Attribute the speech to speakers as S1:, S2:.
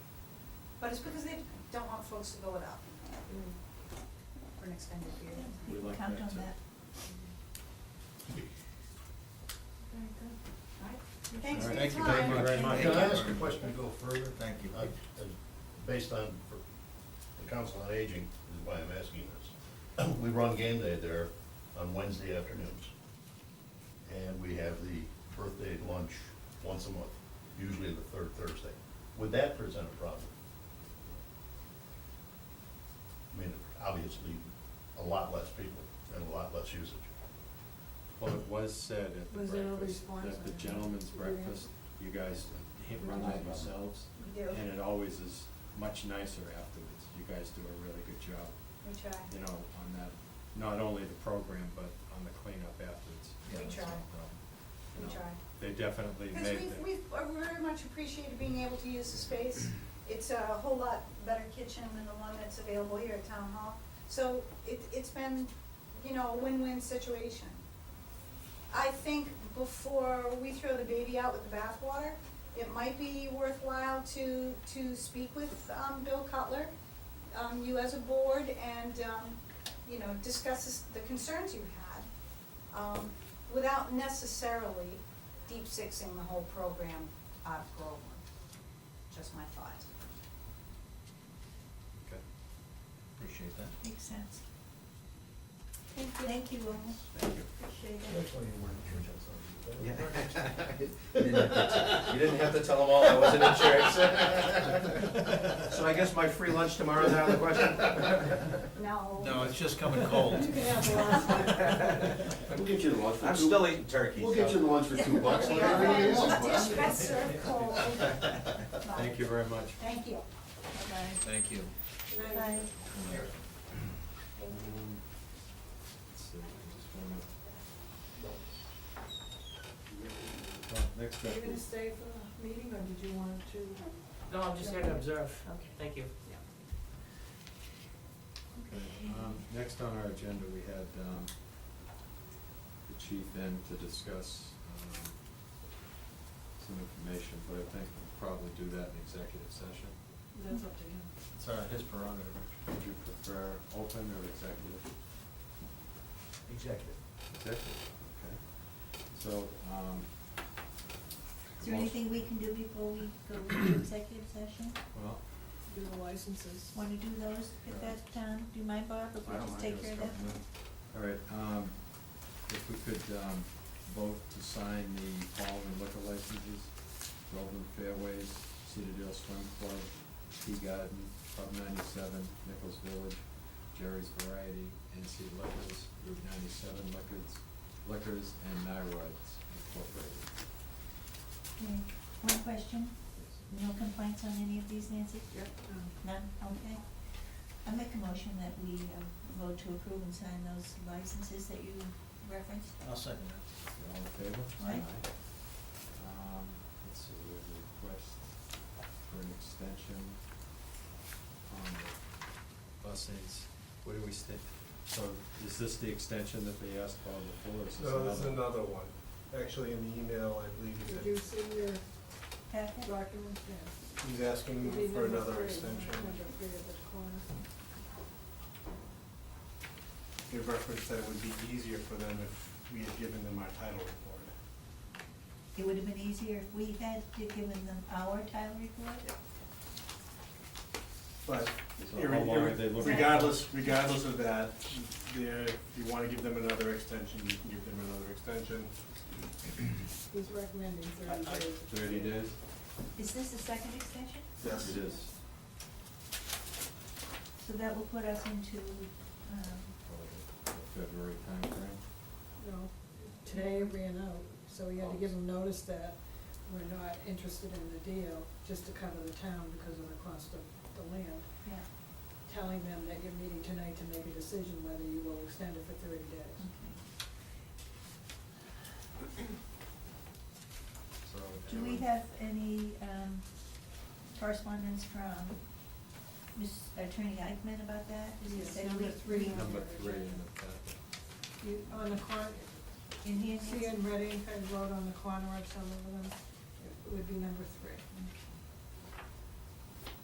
S1: but it's because they don't want folks to go without for an extended period.
S2: We like
S3: Count
S2: that
S3: on
S2: too.
S3: that.
S1: Very good. All right,
S4: All
S1: thanks for
S4: right,
S1: your time.
S4: thank you very much. Thank you
S5: Can
S4: much.
S5: I ask a question to go further?
S4: Thank you.
S5: I- I- Based on for- the Council on Aging, is why I'm asking this. We run game day there on Wednesday afternoons. And we have the birthday lunch once a month, usually the third Thursday. Would that present a problem? I mean, obviously, a lot less people and a lot less usage.
S4: Well, it was said at the
S6: Was there a
S4: breakfast,
S6: response
S4: at the
S6: on that?
S4: gentleman's
S6: Were there-
S4: breakfast, you guys hit run that yourselves.
S1: We do,
S4: And it always is much nicer afterwards. You guys do a really good job,
S1: we try,
S4: you know, on that, not only the program, but on the cleanup afterwards.
S1: We
S4: Yeah, it's
S1: try.
S4: no problem. You
S1: we
S4: know,
S1: try.
S4: They definitely
S1: Because
S4: made
S1: we've, we've
S4: the,
S1: uh, very much appreciated being able to use the space. It's a whole lot better kitchen than the one that's available here at Town Hall. So it, it's been, you know, a win-win situation. I think before we throw the baby out with the bathwater, it might be worthwhile to, to speak with, um, Bill Cutler, um, you as a board, and, um, you know, discuss this- the concerns you had, um, without necessarily deep sixing the whole program out of Groveland. Just my thoughts.
S4: okay.
S5: Appreciate that.
S3: Makes sense.
S1: Thank you.
S3: Thank you all.
S4: Thank you.
S3: Appreciate
S5: That's
S3: it.
S5: why you weren't in church on Sunday.
S7: Yeah. You didn't have to- you didn't have to tell them all I wasn't in church. So I guess my free lunch tomorrow is out of the question?
S1: No.
S4: No, Oh, it's just coming cold.
S1: You can have the last
S5: We'll get you the lunch. for
S7: I'm
S5: two-
S7: still eating turkey.
S5: We'll get you the lunch for two bucks. like everybody
S1: Yeah.
S5: else.
S1: Dish best served cold.
S4: Thank you very much.
S1: Thank you.
S3: Bye-bye.
S7: Thank you.
S3: Bye.
S4: Um, let's see, I just wanna- Well, Next
S6: Are you gonna
S4: up,
S6: stay for the meeting, or did you want to?
S8: No, I'm just here to observe.
S6: Okay.
S8: Thank you.
S4: Okay, um, next on our agenda, we had, um, the chief in to discuss, um, some information, but I think we'll probably do that in executive session.
S6: That's up to him.
S4: It's, uh, his prerogative. Would you prefer open or executive?
S7: Executive.
S4: Executive, okay. So, um.
S3: Is there anything we can do before we go into executive session?
S4: Well,
S6: Do the licenses.
S3: Want to do those at that time? Do you mind, Bob, if we just take care of that?
S4: All right, um, if we could, um, vote to sign the following liquor licenses, Groveland Fairways, Citadel Swim Club, Tea Garden, Pub ninety-seven, Nichols Village, Jerry's Variety, NC Liquors, Route ninety-seven Liquors, Liquors, and Nyroids Incorporated.
S3: Okay. One question?
S4: Yes.
S3: No complaints on any of these, Nancy?
S6: Yep. um,
S3: None? Okay. I make a motion that we uh, vote to approve and sign those licenses that you referenced.
S5: I'll second that.
S4: All in favor?
S3: Aye.
S4: Um, let's see, we have a request for an extension on the buses. What do we sta- so is this the extension that they asked about before, or is this another?
S9: No, this is another one. Actually, in the email, I believe
S6: Did
S9: he
S6: you
S9: said
S6: see your
S3: Packet?
S6: document there?
S9: he's asking
S6: It'd be
S9: for
S6: number
S9: another
S6: three,
S9: extension.
S6: Number three at the corner.
S9: He referenced that it would be easier for them if we had given them our title report.
S3: It would have been easier if we had to given them our title report.
S9: But
S4: So
S9: irre-
S4: how long
S9: irre-
S4: are they looking for?
S9: regardless, regardless of that, there, if you wanna give them another extension, you can give them another extension.
S6: He's recommending thirty
S9: I- I-
S6: days.
S4: Thirty days?
S3: Is this the second extension?
S9: Yes.
S4: It is.
S3: So that will put us into, um,
S4: Probably the Oh, February timeframe.
S6: No, today it ran out, so we had to give them notice that we're not interested in the deal, just to cover the town because of the cost of the land.
S3: yeah,
S6: Telling them that you're meeting tonight to make a decision whether you will extend it for thirty days.
S3: okay.
S4: So.
S3: Do we have any um, correspondence from Ms. Attorney Eichman about that? Is it
S6: Yes,
S3: said
S6: number
S3: we-
S6: three.
S3: we-
S4: Number three in the packet.
S6: You, on the corner,
S3: In here,
S6: See
S3: Nancy?
S6: in red ink, I wrote on the corner of some of them, it would be number